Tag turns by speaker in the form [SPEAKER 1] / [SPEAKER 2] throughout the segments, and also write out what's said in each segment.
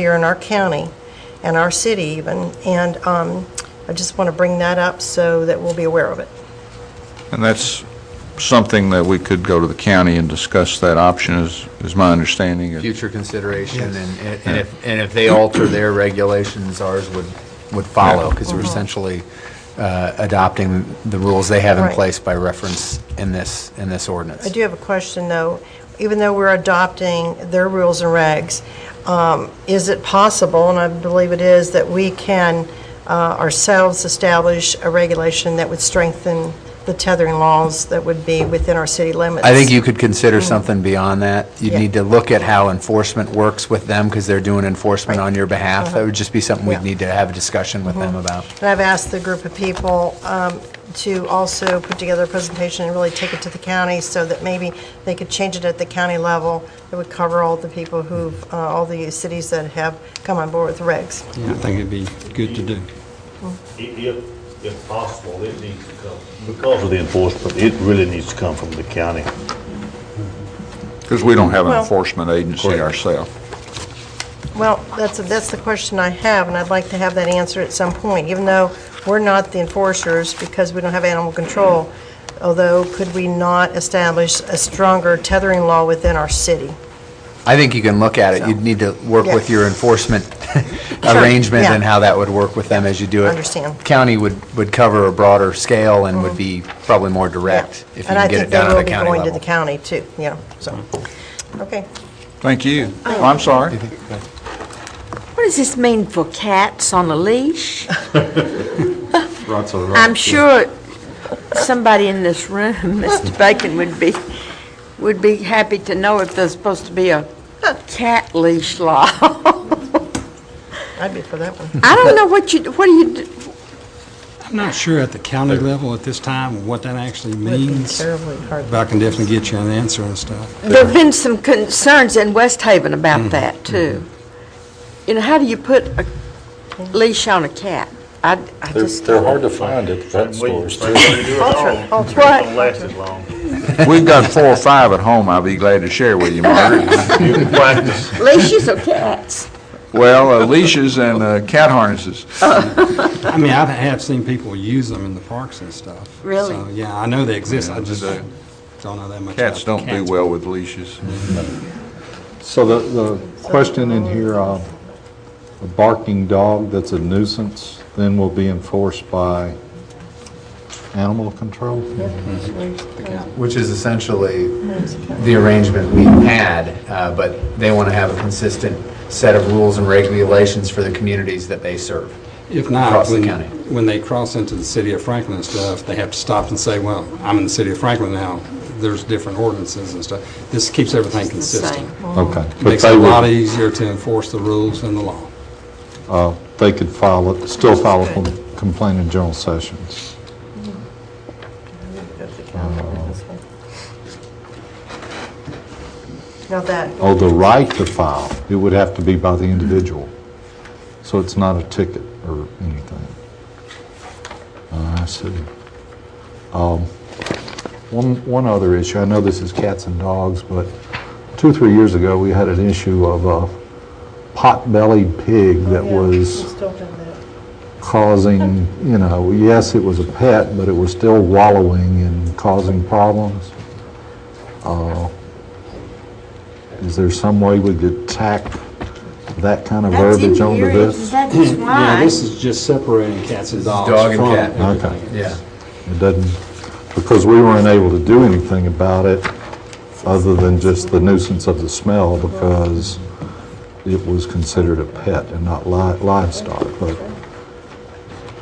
[SPEAKER 1] here in our county and our city even, and um, I just want to bring that up so that we'll be aware of it.
[SPEAKER 2] And that's something that we could go to the county and discuss that option, is, is my understanding. It-
[SPEAKER 3] future consideration, and and- and if, and if they alter their regulations, ours would, would follow, because
[SPEAKER 1] Mm-hmm.
[SPEAKER 3] we're essentially uh, adopting the rules they have in
[SPEAKER 1] Right.
[SPEAKER 3] place by reference in this, in this ordinance.
[SPEAKER 1] I do have a question, though. Even though we're adopting their rules and regs, um, is it possible, and I believe it is, that we can uh, ourselves establish a regulation that would strengthen the tethering laws that would be within our city limits?
[SPEAKER 3] I think you could consider something beyond that. You'd
[SPEAKER 1] Mm. Yeah.
[SPEAKER 3] need to look at how enforcement works with them, because they're doing enforcement on your behalf. That would just be something
[SPEAKER 1] Uh-huh. Yeah. Mm-hmm.
[SPEAKER 3] we'd need to have a discussion with them about.
[SPEAKER 1] And I've asked the group of people um, to also put together a presentation and really take it to the county so that maybe they could change it at the county level. It would cover all the people who've, uh, all the cities that have come on board with the regs.
[SPEAKER 4] Yeah, I think it'd be good to do.
[SPEAKER 5] I- If, if possible, it needs to come, because of the enforcement, it really needs to come from the county.
[SPEAKER 2] Because we don't have an
[SPEAKER 1] Well-
[SPEAKER 2] enforcement agency ourselves.
[SPEAKER 1] Well, that's, that's the question I have, and I'd like to have that answered at some point, even though we're not the enforcers because we don't have animal control. Although, could we not establish a stronger tethering law within our city?
[SPEAKER 3] I think you can look at it. You'd need to work
[SPEAKER 1] Yeah.
[SPEAKER 3] with your enforcement arrangement
[SPEAKER 1] yeah.
[SPEAKER 3] and how that would work with them as you do it.
[SPEAKER 1] Understand. Mm-hmm.
[SPEAKER 3] County would, would cover a broader scale and would be probably more direct if you can get it done
[SPEAKER 1] And I
[SPEAKER 3] at a county
[SPEAKER 1] think they will be going to the
[SPEAKER 3] level. Mm-hmm.
[SPEAKER 1] county too, yeah, so, okay.
[SPEAKER 2] Thank you. Oh, I'm sorry.
[SPEAKER 6] What does this mean for cats on a leash? I'm sure somebody in this room, Mr. Bacon, would be, would be happy to know if there's supposed to be a cat leash law.
[SPEAKER 1] I'd be for that one.
[SPEAKER 6] I don't know what you, what do you, do-
[SPEAKER 4] I'm not sure at the county level at this time what that actually
[SPEAKER 1] It'd be
[SPEAKER 4] means,
[SPEAKER 1] terribly hard.
[SPEAKER 4] but I can definitely get you an answer and stuff.
[SPEAKER 6] there've been some concerns in West Haven about that, too. You know, how do you put a leash on a cat? I, I
[SPEAKER 7] They're,
[SPEAKER 6] just.
[SPEAKER 7] they're hard to find at vet stores, too.
[SPEAKER 1] Alter-
[SPEAKER 5] Don't last as long.
[SPEAKER 2] We've got four or five at home I'd be glad to share with you, Margaret.
[SPEAKER 5] You can practice.
[SPEAKER 6] Leashes or cats?
[SPEAKER 2] Well, uh, leashes and uh, cat harnesses.
[SPEAKER 4] I mean, I have seen people use them in the parks and stuff.
[SPEAKER 6] Really?
[SPEAKER 4] So, yeah, I know they exist,
[SPEAKER 2] Yeah,
[SPEAKER 4] I just
[SPEAKER 2] they do.
[SPEAKER 4] don't know that much about
[SPEAKER 2] Cats don't do
[SPEAKER 4] cats.
[SPEAKER 2] well with leashes.
[SPEAKER 8] So the, the question in here, uh, a barking dog that's a nuisance then will be enforced by animal control?
[SPEAKER 3] Which is essentially
[SPEAKER 1] Mm-hmm.
[SPEAKER 3] the arrangement we had, uh, but they want to have a consistent set of rules and regulations for the communities that they serve.
[SPEAKER 4] If not,
[SPEAKER 3] across the
[SPEAKER 4] when,
[SPEAKER 3] county.
[SPEAKER 4] when they cross into the city of Franklin and stuff, they have to stop and say, well, I'm in the city of Franklin now, there's different ordinances and stuff. This keeps everything
[SPEAKER 6] The same.
[SPEAKER 4] consistent.
[SPEAKER 8] Okay. But
[SPEAKER 4] Makes it
[SPEAKER 8] they
[SPEAKER 4] a lot
[SPEAKER 8] would,
[SPEAKER 4] easier to enforce the rules and the law.
[SPEAKER 8] uh, they could file, it- still file a com- complaint in general sessions.
[SPEAKER 1] Now that,
[SPEAKER 8] Oh, the right to file, it would have to be by the individual. So it's not a ticket or anything. Uh, I see. Um, One, one other issue, I know this is cats and dogs, but two or three years ago, we had an issue of a pot-bellied pig that was causing, you know, yes, it was a pet, but it was still wallowing and causing problems. Uh, Is there some way we could tack that kind of
[SPEAKER 6] That's in
[SPEAKER 8] verbiage onto
[SPEAKER 6] here,
[SPEAKER 8] this?
[SPEAKER 6] That is why.
[SPEAKER 4] Yeah, this is just separating cats and dogs
[SPEAKER 3] dog and
[SPEAKER 4] from
[SPEAKER 3] cat. Okay.
[SPEAKER 4] everything.
[SPEAKER 3] Yeah.
[SPEAKER 8] It doesn't, because we weren't able to do anything about it other than just the nuisance of the smell because it was considered a pet and not li- livestock, but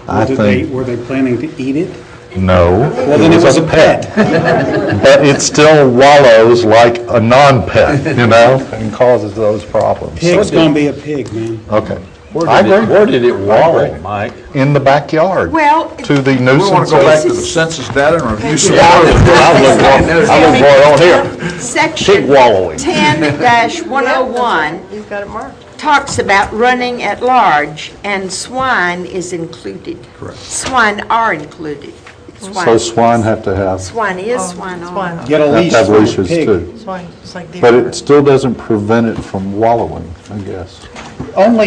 [SPEAKER 8] I
[SPEAKER 9] Did they,
[SPEAKER 8] think,
[SPEAKER 9] were they planning to eat it?
[SPEAKER 8] no.
[SPEAKER 9] Well, then it was a pet.
[SPEAKER 8] But it still wallows like a non-pet, you know, and causes those problems.
[SPEAKER 9] Pig's gonna be a pig, man.
[SPEAKER 8] Okay.
[SPEAKER 7] Where
[SPEAKER 8] I
[SPEAKER 7] did it-
[SPEAKER 8] agree.
[SPEAKER 7] Where did it wallow, Mike?
[SPEAKER 8] In the backyard.
[SPEAKER 6] Well,
[SPEAKER 8] To the
[SPEAKER 2] We want
[SPEAKER 8] nuisance
[SPEAKER 2] to go back to the
[SPEAKER 8] of...
[SPEAKER 2] census data and review some
[SPEAKER 8] I
[SPEAKER 2] more.
[SPEAKER 8] live right- I live right on here.
[SPEAKER 6] section
[SPEAKER 8] wallowing.
[SPEAKER 6] ten one oh one
[SPEAKER 1] you've got it marked.
[SPEAKER 6] talks about running at large, and swine is included. Correct. Swine are included.
[SPEAKER 8] So swine Oh, have to have,
[SPEAKER 6] Swine
[SPEAKER 1] Oh,
[SPEAKER 6] is, swine are.
[SPEAKER 9] Get a
[SPEAKER 8] have
[SPEAKER 9] leash
[SPEAKER 8] to have
[SPEAKER 9] for a
[SPEAKER 8] leashes
[SPEAKER 9] pig.
[SPEAKER 8] too.
[SPEAKER 1] It's like, it's like.
[SPEAKER 8] But it still doesn't prevent it from wallowing, I guess. only